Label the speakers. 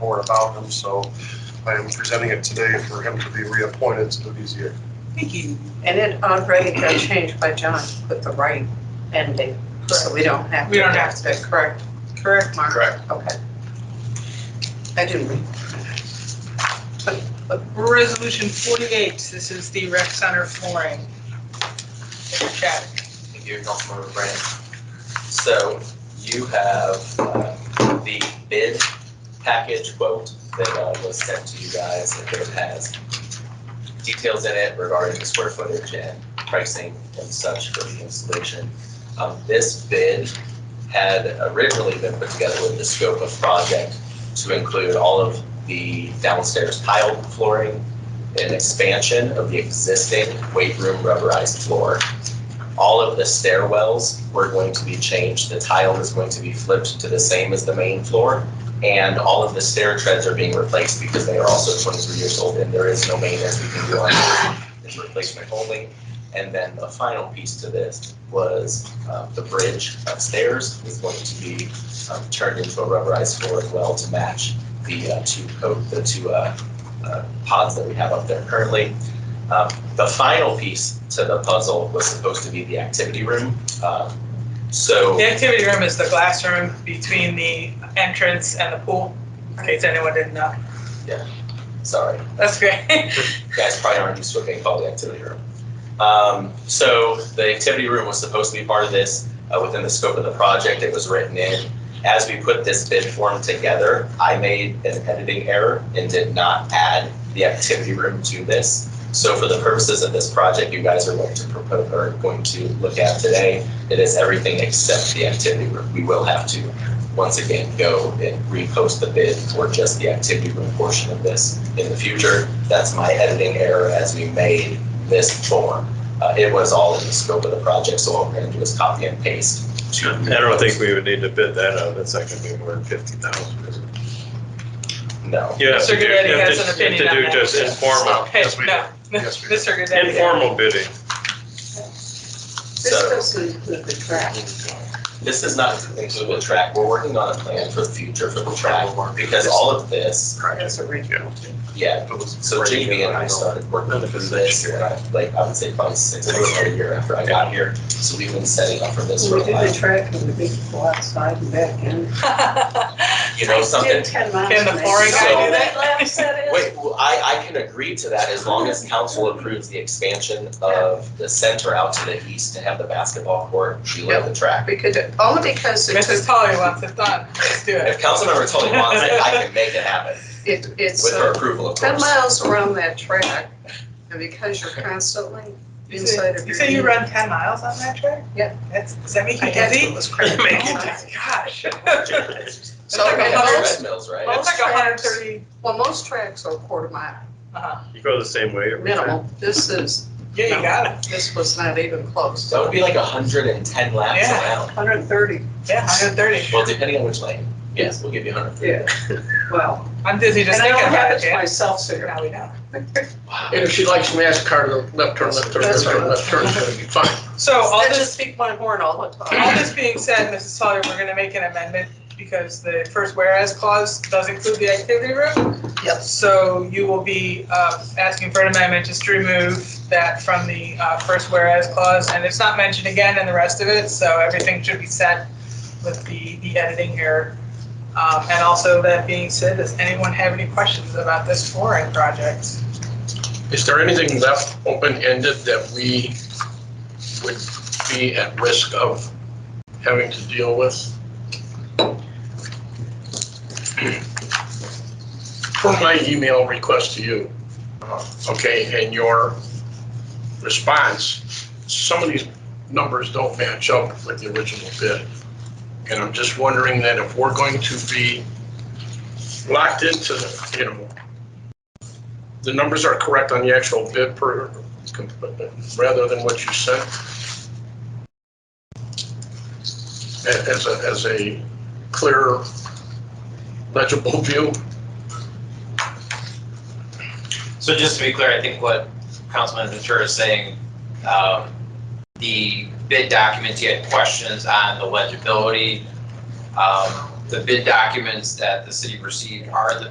Speaker 1: more about him, so I am presenting it today for him to be reappointed to the BZA.
Speaker 2: Thank you.
Speaker 3: And it already got changed by John, put the right ending, so we don't have to.
Speaker 2: We don't have
Speaker 3: to. Correct, correct, Mark?
Speaker 1: Correct.
Speaker 3: Okay. I didn't read.
Speaker 2: Resolution 48, this is the rec center flooring. Mr. Chadwick.
Speaker 4: Thank you, Councilmember Brand. So you have uh, the bid package quote that uh, was sent to you guys. and It has details in it regarding the square footage and pricing and such for the installation. Um, This bid had originally been put together with the scope of project to include all of the downstairs tile flooring and expansion of the existing weight room rubberized floor all of the stairwells were going to be changed. The tile is going to be flipped to the same as the main floor. And all of the stair treads are being replaced because they are also 23 years old and there is no maintenance we can do on it. It's replacement only. And then the final piece to this was uh, the bridge upstairs is going to be um, turned into a rubberized floor as well to match the uh, two coat, the two uh, uh, pods that we have up there currently. Um, the final piece to the puzzle was supposed to be the activity room. Um, So,
Speaker 2: The activity room is the glass room between the entrance and the pool, in case anyone didn't know.
Speaker 4: sorry,
Speaker 2: That's great.
Speaker 4: you guys probably aren't used to it being called the activity room. Um, So the activity room was supposed to be part of this, uh, within the scope of the project, it was written in. As we put this bid form together, I made an editing error and did not add the activity room to this. So for the purposes of this project, you guys are going to propose, or going to look at today, it is everything except the activity room. We will have to, once again, go and repost the bid for just the activity room portion of this in the future. That's my editing error as we made this form. Uh, It was all in the scope of the project, so all we're going to do is copy and paste. to-
Speaker 5: I don't think we would need to bid that out, that's not gonna be more than fifty thousand.
Speaker 4: No.
Speaker 5: You have
Speaker 2: Mr.
Speaker 5: to do, you
Speaker 2: Goodetti
Speaker 5: have
Speaker 2: has an
Speaker 5: to- you have
Speaker 2: opinion
Speaker 5: to
Speaker 2: on
Speaker 5: do
Speaker 2: that.
Speaker 5: just informal,
Speaker 2: Okay,
Speaker 1: yes, we
Speaker 2: no.
Speaker 1: Yes, we do.
Speaker 2: Mr. Goodetti.
Speaker 5: informal bidding.
Speaker 3: This
Speaker 4: So
Speaker 3: doesn't include the track.
Speaker 4: this is not included with track. We're working on a plan for the future for the track because all of this
Speaker 3: That's original.
Speaker 4: Yeah, so JB and I started working on this, and I, like, I would say probably six months or a year after I got here. So we've been setting up for this for
Speaker 3: We
Speaker 4: a
Speaker 3: did the
Speaker 4: while.
Speaker 3: track and the big pool outside and back in.
Speaker 4: You know something?
Speaker 3: Did ten miles.
Speaker 2: Can the
Speaker 3: maybe.
Speaker 2: flooring
Speaker 4: guy do
Speaker 2: that?
Speaker 3: Laps that is.
Speaker 4: Wait, well, I, I can agree to that as long as council approves the expansion of the center out to the east to have the basketball court below the track.
Speaker 3: We could, only because it
Speaker 2: Mrs.
Speaker 3: took,
Speaker 2: Tully wants it done. Let's do it.
Speaker 4: If Councilmember Tully wants it, I can make it happen
Speaker 3: it, it's
Speaker 4: with her
Speaker 3: uh,
Speaker 4: approval, of
Speaker 3: ten
Speaker 4: course.
Speaker 3: miles around that track. And because you're constantly
Speaker 2: You
Speaker 3: inside of
Speaker 2: say you
Speaker 3: your.
Speaker 2: say you run 10 miles on that track?
Speaker 3: Yeah.
Speaker 2: That's, does that make you
Speaker 3: I guess
Speaker 2: dizzy?
Speaker 3: it was crazy.
Speaker 5: Make
Speaker 2: Oh
Speaker 5: you
Speaker 2: my gosh.
Speaker 4: It's
Speaker 3: So,
Speaker 2: like
Speaker 4: like
Speaker 2: a
Speaker 3: okay,
Speaker 4: a
Speaker 2: hundred-
Speaker 3: most,
Speaker 4: Red Mills, right?
Speaker 2: Well, it's like
Speaker 3: Most tracks.
Speaker 2: 130.
Speaker 3: well, most tracks are quarter mile
Speaker 2: Uh-huh.
Speaker 5: You go the same way every time.
Speaker 3: minimal. This is,
Speaker 2: Yeah, you got it.
Speaker 3: this was not even close.
Speaker 4: That would be like hundred and ten laps
Speaker 2: Yeah.
Speaker 4: around.
Speaker 3: Hundred and thirty,
Speaker 2: Yeah, 130.
Speaker 4: Well, depending on which lane. Yes, we'll give you hundred.
Speaker 3: yeah, well,
Speaker 2: I'm dizzy
Speaker 3: and
Speaker 2: just
Speaker 3: I
Speaker 2: thinking
Speaker 3: don't
Speaker 2: about
Speaker 3: have
Speaker 2: it.
Speaker 3: it
Speaker 2: Jan.
Speaker 3: myself, so you're
Speaker 2: Now we know.
Speaker 4: Wow.
Speaker 6: And if she likes NASCAR, the left turn, left turn, left turn, left turn, it's gonna be fine.
Speaker 2: So all
Speaker 3: I
Speaker 2: this,
Speaker 3: just speak my horn all the
Speaker 2: all
Speaker 3: time.
Speaker 2: this being said, Mrs. Sullivan, we're gonna make an amendment because the first whereas clause does include the activity room.
Speaker 3: Yep.
Speaker 2: So you will be, uh, asking for an amendment just to remove that from the, uh, first whereas clause. And it's not mentioned again in the rest of it, so everything should be set with the, the editing here. Um, and also that being said, does anyone have any questions about this flooring project?
Speaker 6: Is there anything left open-ended that we would be at risk of having to deal with? For my email request to you, okay, and your response, some of these numbers don't match up with the original bid. And I'm just wondering that if we're going to be locked into, the, you know, the numbers are correct on the actual bid per, rather than what you sent? A- As a, as a clear legible view?
Speaker 7: So just to be clear, I think what Councilman Ventura is saying, um, the bid documents, he had questions on the legibility. Um, the bid documents that the city received are the